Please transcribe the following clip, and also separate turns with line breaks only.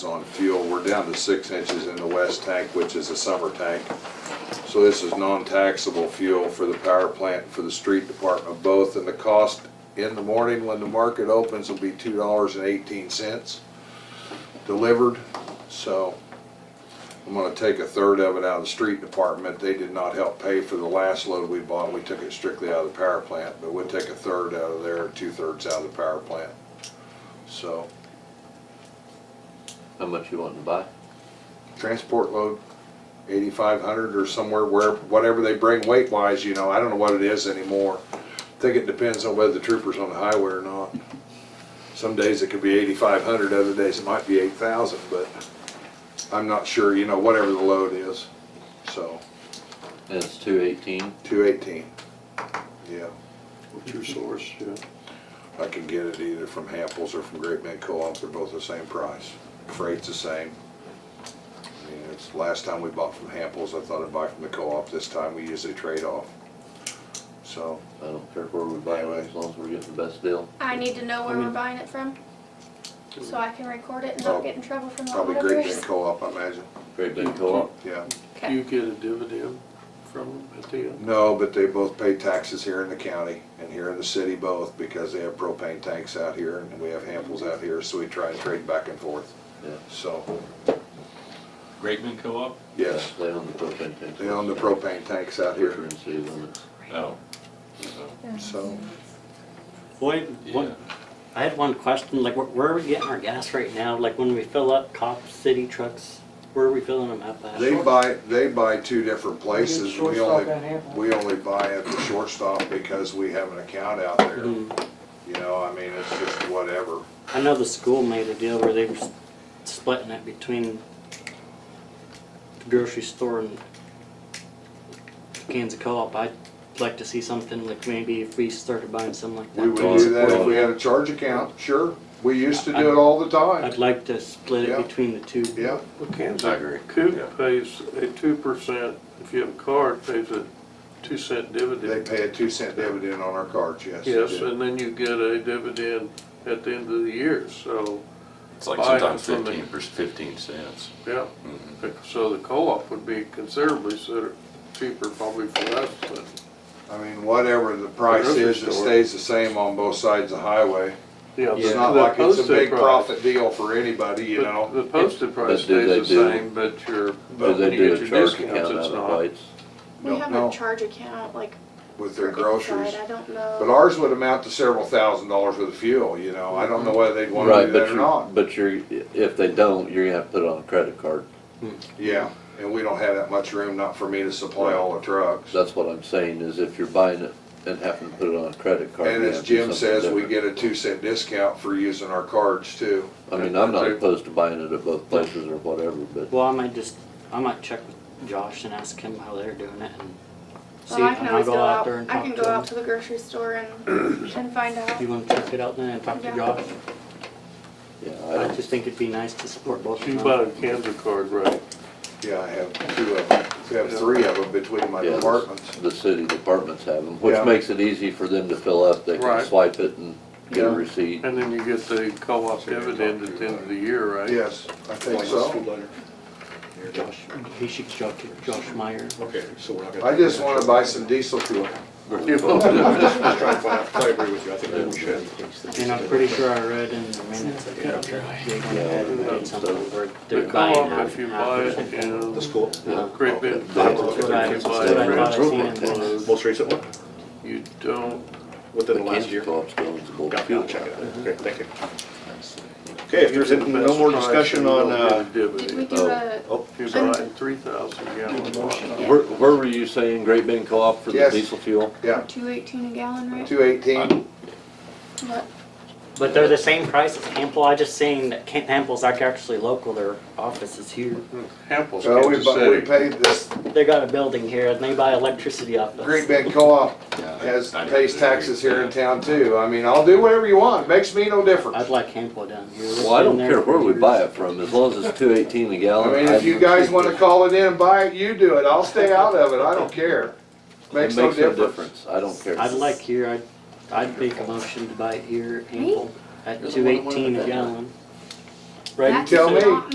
on fuel. We're down to six inches in the west tank, which is a summer tank. So this is non-taxable fuel for the power plant, for the street department both. And the cost in the morning when the market opens will be two dollars and eighteen cents delivered. So I'm gonna take a third of it out of the street department. They did not help pay for the last load we bought. We took it strictly out of the power plant, but we'll take a third out of there, two thirds out of the power plant. So
How much you wanting to buy?
transport load, eighty-five hundred or somewhere where, whatever they bring weight wise, you know, I don't know what it is anymore. I Think it depends on whether the trooper's on the highway or not. Some days it could be eighty-five hundred, other days it might be eight thousand, but I'm not sure, you know, whatever the load is, so,
And it's two eighteen.
two eighteen. Yeah,
What's your source, yeah?
I can get it either from Hamples or from Great Bend Co-op, they're both the same price, freight's the same. I mean, it's, last time we bought from Hamples, I thought I'd buy from the co-op, this time we usually trade off. So,
I don't care where we buy it, as long as we're getting the best deal.
I need to know where
I
we're
mean-
buying it from, so I can record it and
Oh,
not get in trouble from the
probably Great Bend
auditors.
Co-op, I imagine,
Great big co-op.
yeah.
Do you
Okay,
get a dividend from them at the end?
No, but they both pay taxes here in the county and here in the city both, because they have propane tanks out here and we have Hamples out here, so we try and trade back and forth.
Yeah.
So,
Grapeman Co-op?
yes,
They own the propane tank.
they own the propane tanks out
Here
here,
in city limits.
No.
so.
Boyd,
Yeah.
what, I had one question, like, where, where are we getting our gas right now? Like, when we fill up cop city trucks, where are we filling them up at?
They buy, they buy two different places, we only,
Shortstop and handle.
we only buy at the shortstop because we have an account out there.
Mm-hmm.
You
Mm.
know, I mean, it's just whatever.
I know the school made a deal where they were s- splitting it between the grocery store and Kansas Co-op. I'd like to see something like maybe if we started buying something like that.
We would do that if we had a charge account, sure, we used to do it all the time,
I'd like to split
Yeah.
it between the two.
yeah.
Well, Kansas
I agree. Yeah.
Coop pays a two percent, if you have a card, pays a two cent
They
dividend.
pay a two cent dividend on our cards, yes. they
Yes,
do.
and then you get a dividend at the end of the year, so,
It's like
Buy it
sometimes
from the-
fifteen, per- fifteen cents.
yeah.
Mm-hmm.
So the co-op would be considerably sort of cheaper probably for us, but
I mean, whatever the price
Grocery
is, it
store.
stays the same on both sides of the highway.
Yeah,
It's
the-
not
the
like it's a
posted
big
price-
profit deal for anybody, you
the-
know?
The posted price
do they
stays the
do-
same, but your,
Do
but when
they
you
do
get
a
your
charge
discounts,
account
it's
out of
not.
lights?
we
No,
have
no.
a charge account, like,
With
for
their groceries.
inside, I don't
But
know.
ours would amount to several thousand dollars worth of fuel, you know, I don't know whether they'd wanna do
Right, but
that or
you're,
not.
but you're, if they don't, you're gonna have to put it on a credit card.
Yeah, and we don't have that much room, not for me to supply all the trucks.
That's what I'm saying, is if you're buying it and having to put it on a credit card.
And
you
as
have to do
Jim
something
says, we
different.
get a two cent discount for using our cards too.
I mean, I'm not opposed to buying it at both places or whatever, but
Well, I might just, I might check with Josh and ask him how they're doing it and see.
Well, I can
might
always go out,
there and
I
talk
can
to
go out
him.
to the grocery store and, and find out.
You wanna check it out then and talk to
Yeah.
Josh?
yeah, I
I
don't,
just think it'd be nice to support both
You
of
bought
them.
a Kansas card, right?
Yeah, I have two of them, I have three of them between my
Yeah.
departments.
the city departments have them,
Yeah.
which makes it easy for them to fill up. They can
Right.
swipe it and get a
Yeah.
receipt.
And then you get the co-op dividend at the end of the year, right?
Yes, I think so.
Josh, he should talk to Josh Meyer.
Okay, so we're not gonna.
I just wanna buy some diesel fuel.
You know,
I'm just just trying to find out, I agree with you, I think that we should.
And I'm pretty sure I read in the minutes that they're going ahead and did something where
The
they're buying
co-op,
out.
if you buy it in
The school.
Great Bend,
Yeah.
if you buy
That's what I thought I seen in the
it,
Most recent one,
you don't
within the last year.
Kansas Co-op's going to go
Got it,
fuel.
I'll check it out. Okay, thank you. Okay, if there's no more
Best
discussion
price, you
on,
don't get a
uh,
Did we
Dividend,
do a,
oh,
if you buy it three thousand gallon. bottles.
yeah,
Where, where were you saying Great Bend Co-op for the
Yes.
diesel fuel?
Yeah,
two eighteen a gallon, right?
two eighteen,
What?
But they're the same price as Hample, I just seen that Kent Hample's like actually local, their office is here.
Hample's
so we,
Kansas
bu- we
City.
paid this,
They got a building here and they buy electricity off us.
Green Bend Co-op
Yeah,
has,
I- I
pays
agree.
taxes here in town too. I mean, I'll do whatever you want, makes me no difference.
I'd like Hample down here.
Well, I don't care where we buy it from, as long as it's two eighteen a
I
gallon.
mean, if you guys wanna call it in and buy it, you do it, I'll stay out of it, I don't care.
it
Makes no difference.
I don't care.
I'd like here, I'd, I'd make a motion to buy it here at Hample at
You're the
two
one that wanted
eighteen a
that.
gallon.
You
Right?
That's
tell me.
not